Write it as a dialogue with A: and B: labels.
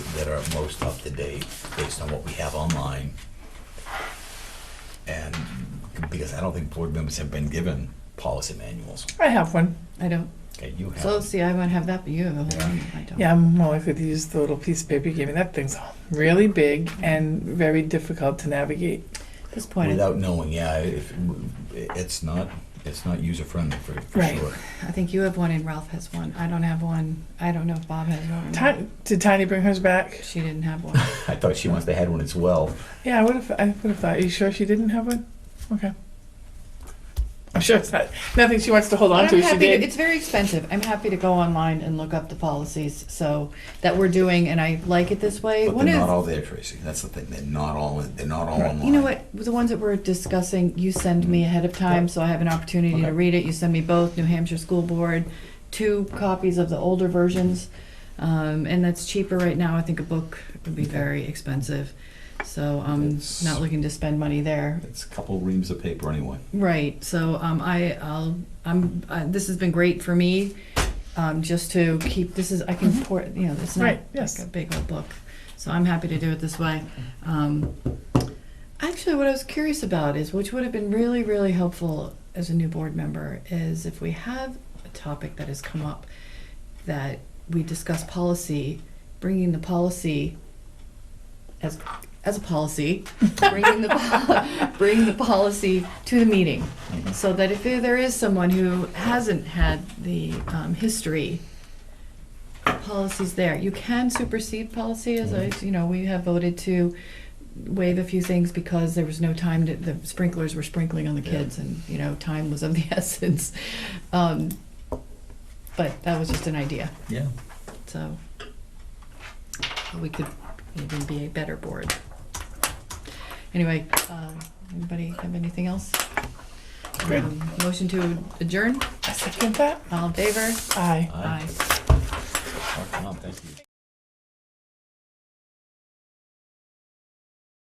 A: that are most up to date based on what we have online. And because I don't think board members have been given policy manuals.
B: I have one.
C: I don't,
A: Okay, you have.
C: so see, I won't have that, but you have the whole
A: Yeah.
C: one, I don't.
B: Yeah, I'm more likely to use the little piece of paper you gave me. That thing's really big and very difficult to navigate.
C: At this point, I
A: Without knowing, yeah, if, it's not, it's not user friendly for, for
B: Right.
A: sure.
C: I think you have one and Ralph has one. I don't have one. I don't know if Bob has one. or not.
B: Ti- did Tiny bring hers back?
C: She didn't have one.
A: I thought she must have had one as well.
B: Yeah, I would have. I would have thought. Are you sure she didn't have one? Okay. I'm sure it's not nothing she wants to hold on
C: I'm
B: to. if She
C: happy to,
B: did.
C: it's very expensive. I'm happy to go online and look up the policies, so, that we're doing, and I like it this way.
A: But
C: One
A: they're
C: of-
A: not all there, Tracy. That's the thing. They're not all, they're not all
B: Right.
A: online. Mm.
C: You know what, the ones that we're discussing, you send me ahead of time, so I have an opportunity
A: Okay.
C: to read it. You send me both, New Hampshire School Board, two copies of the older versions. Um, and that's cheaper right now. I think a book would be very expensive. So I'm
A: That's-
C: not looking to spend money there.
A: It's a couple reams of paper anyway.
C: Right, so, um, I, I'll, I'm, uh, this has been great for me, um, just to keep, this is, I can pour, you know, it's
B: Mm-hmm.
C: not
B: Right, yes.
C: like a big old book. So I'm happy to do it this way. Um, actually, what I was curious about is, which would have been really, really helpful as a new board member, is if we have a topic that has come up that we discuss policy, bringing the policy as, as a policy, bringing the, pol- bring the policy to the meeting. So that if there is someone who hasn't had the um, history, policies there, you can supersede policy, as I, you know, we have voted to waive a few things because there was no time to, the sprinklers were sprinkling on the
A: Yeah.
C: kids and, you know, time was of the essence. Um, But that was just an idea,
A: Yeah.
C: so we could even be a better board. Anyway, um, anybody have anything else?
B: Good.
C: Um, Motion to adjourn,
B: I second that.
C: all in favor?
B: Aye.
A: Aye. Oh, Tom, thank you.